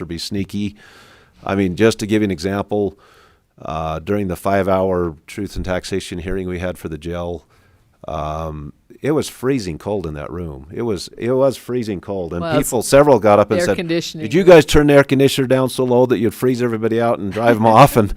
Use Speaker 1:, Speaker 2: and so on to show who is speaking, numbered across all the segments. Speaker 1: or be sneaky. I mean, just to give you an example, uh, during the five-hour truth and taxation hearing we had for the jail, um, it was freezing cold in that room. It was it was freezing cold, and
Speaker 2: Well, it's
Speaker 1: people several got up and
Speaker 2: air
Speaker 1: said,
Speaker 2: conditioning.
Speaker 1: "Did you guys turn the air conditioner down so low that you'd freeze everybody out and drive them off?" And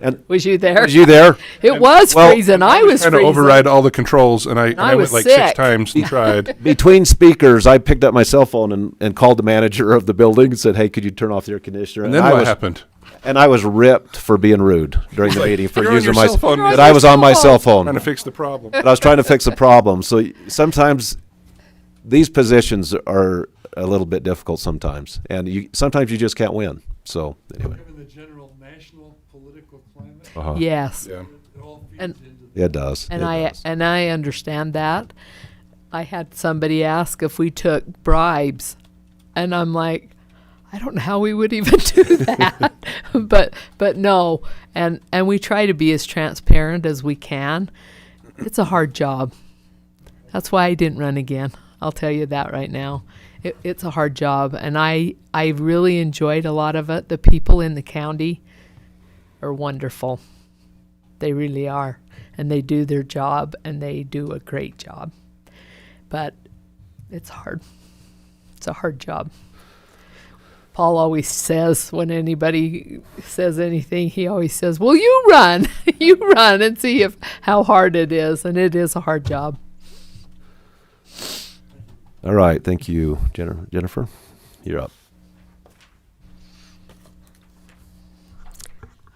Speaker 1: and
Speaker 2: Was you there?
Speaker 1: was you there?
Speaker 2: It was
Speaker 1: Well-
Speaker 2: freezing. I was
Speaker 3: trying to
Speaker 2: freezing.
Speaker 3: override all the controls, and I, and
Speaker 2: I
Speaker 3: I,
Speaker 2: was
Speaker 3: went like
Speaker 2: sick.
Speaker 3: six times and tried.
Speaker 1: Between speakers, I picked up my cell phone and, and called the manager of the building and said, "Hey, could you turn off the air conditioner?"
Speaker 3: And then
Speaker 1: I
Speaker 3: what
Speaker 1: was,
Speaker 3: happened?
Speaker 1: And I was ripped for being rude during the meeting for
Speaker 3: "You're on
Speaker 1: using
Speaker 3: your
Speaker 1: my
Speaker 3: cell phone. You're on
Speaker 1: that
Speaker 3: your
Speaker 1: I was on my
Speaker 2: cell
Speaker 1: cell phone.
Speaker 3: Trying to fix the problem.
Speaker 1: but I was trying to fix a problem. So y- sometimes these positions are a little bit difficult sometimes, and you sometimes you just can't win. So anyway,
Speaker 4: Given the general national political climate,
Speaker 2: Uh-huh. Yes.
Speaker 3: Yeah.
Speaker 4: it all feeds
Speaker 2: And-
Speaker 4: into the
Speaker 1: it does.
Speaker 2: And
Speaker 1: it
Speaker 2: I uh,
Speaker 1: does.
Speaker 2: and I understand that. I had somebody ask if we took bribes, and I'm like, I don't know how we would even do that. but but no, and and we try to be as transparent as we can. It's a hard job. That's why I didn't run again. I'll tell you that right now. It, it's a hard job, and I I really enjoyed a lot of it. The people in the county are wonderful. They really are. And they do their job and they do a great job. But it's hard. It's a hard job. Paul always says when anybody says anything, he always says, "Well, you run, you run and see if how hard it is." And it is a hard job.
Speaker 1: All right, thank you, Jennifer. Jennifer, you're up.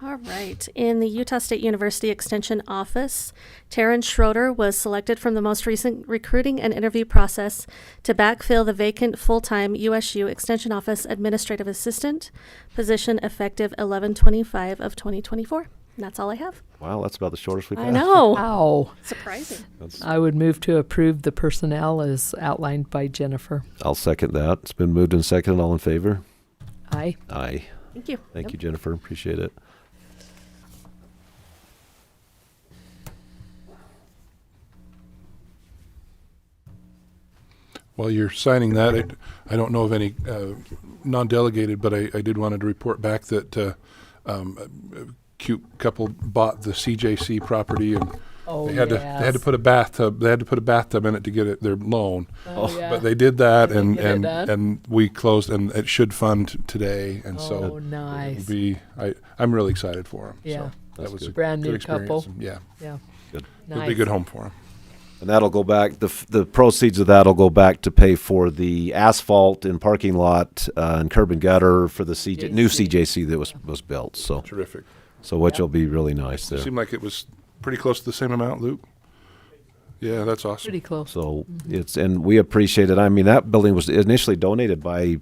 Speaker 5: All right. In the Utah State University Extension Office, Taryn Schroeder was selected from the most recent recruiting and interview process to backfill the vacant full-time USU Extension Office Administrative Assistant position effective 11/25 of 2024. And that's all I have.
Speaker 1: Wow, that's about the shortest we've
Speaker 5: I
Speaker 1: had.
Speaker 5: know.
Speaker 2: Ow.
Speaker 5: Surprising.
Speaker 2: I would move to approve the personnel as outlined by Jennifer.
Speaker 1: I'll second that. It's been moved and seconded. All in favor?
Speaker 2: Aye.
Speaker 1: Aye.
Speaker 5: Thank you.
Speaker 1: Thank you, Jennifer. Appreciate it.
Speaker 3: While you're signing that, I, I don't know of any uh, non-delegated, but I, I did wanted to report back that uh, um, a- a cute couple bought the CJC property and
Speaker 2: Oh,
Speaker 3: they had to they had to put a bathtub they had to put a bathtub in it to get it, their loan.
Speaker 2: Oh, yeah.
Speaker 3: But they did that,
Speaker 2: Did they
Speaker 3: and
Speaker 2: get it
Speaker 3: and,
Speaker 2: done?
Speaker 3: and we closed, and it should fund today, and so
Speaker 2: Oh,
Speaker 3: it'll
Speaker 2: nice.
Speaker 3: be I I'm really excited for them.
Speaker 2: Yeah.
Speaker 3: so that was a
Speaker 2: Brand
Speaker 3: good
Speaker 2: new
Speaker 3: experience,
Speaker 2: couple.
Speaker 3: and yeah,
Speaker 2: Yeah.
Speaker 1: Good.
Speaker 3: it'll be a
Speaker 2: Nice.
Speaker 3: good home for them.
Speaker 1: And that'll go back, the, f- the proceeds of that'll go back to pay for the asphalt and parking lot, uh, and curb and gutter for the CJ, new
Speaker 2: JC.
Speaker 1: CJC that was, was built, so,
Speaker 3: Terrific.
Speaker 1: so which will be really nice there.
Speaker 3: Seemed like it was pretty close to the same amount, Luke. Yeah, that's awesome.
Speaker 2: Pretty close.
Speaker 1: So
Speaker 2: Mm-hmm.
Speaker 1: it's, and we appreciate it. I mean, that building was initially donated by,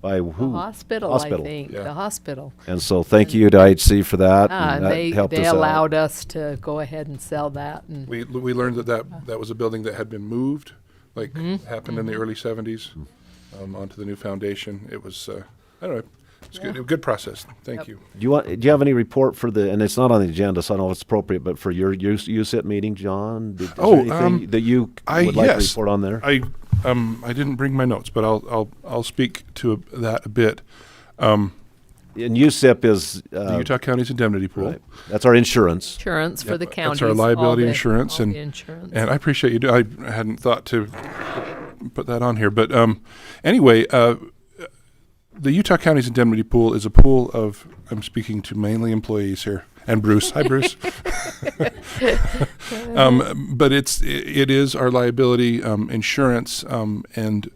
Speaker 1: by
Speaker 2: The
Speaker 1: who?
Speaker 2: hospital,
Speaker 1: Hospital.
Speaker 2: I think.
Speaker 3: Yeah.
Speaker 2: The hospital.
Speaker 1: And so thank you to IHC for that. and
Speaker 2: Ah, and
Speaker 1: that
Speaker 2: they,
Speaker 1: helped
Speaker 2: they
Speaker 1: us out.
Speaker 2: allowed us to go ahead and sell that. And
Speaker 3: We we learned that that, that was a building that had been moved, like
Speaker 2: Mm-hmm.
Speaker 3: happened in the early '70s, um, onto the new foundation. It was uh, I don't know. It's good. A good process. Thank you.
Speaker 1: Do you want, do you have any report for the, and it's not on the agenda, so I don't know if it's appropriate, but for your, you, you sit meeting, John? Did- is there
Speaker 3: Oh,
Speaker 1: anything
Speaker 3: um,
Speaker 1: That you
Speaker 3: I-
Speaker 1: would like to
Speaker 3: yes.
Speaker 1: report on there?
Speaker 3: I um I didn't bring my notes, but I'll I'll I'll speak to that a bit. Um,
Speaker 1: And USIP is,
Speaker 3: the
Speaker 1: uh,
Speaker 3: Utah County's indemnity pool.
Speaker 1: Right. That's our insurance.
Speaker 2: insurance for
Speaker 3: Yep,
Speaker 2: the
Speaker 3: that's
Speaker 2: county.
Speaker 3: our liability insurance and-
Speaker 2: insurance.
Speaker 3: And I appreciate you. Do- I hadn't thought to put that on here, but um, anyway, uh, the Utah County's indemnity pool is a pool of. I'm speaking to mainly employees here, and Bruce. Hi, Bruce. um, but it's i it is our liability um, insurance, um, and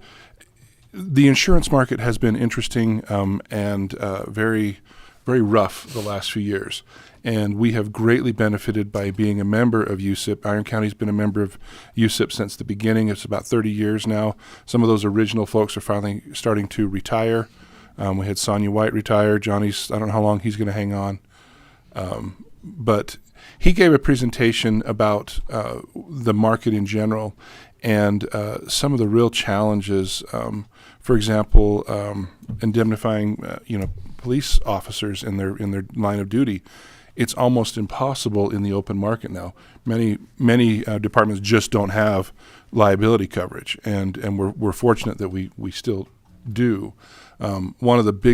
Speaker 3: the insurance market has been interesting um, and uh, very, very rough the last few years. And we have greatly benefited by being a member of USIP. Iron County's been a member of USIP since the beginning. It's about 30 years now. Some of those original folks are finally starting to retire. Um, we had Sonia White retire. Johnny's, I don't know how long he's going to hang on but he gave a presentation about uh, the market in general and uh, some of the real challenges. Um, for example, um, indemnifying uh, you know police officers in their in their line of duty. It's almost impossible in the open market now. Many many uh, departments just don't have liability coverage, and and we're we're fortunate that we we still do. Um, one of the big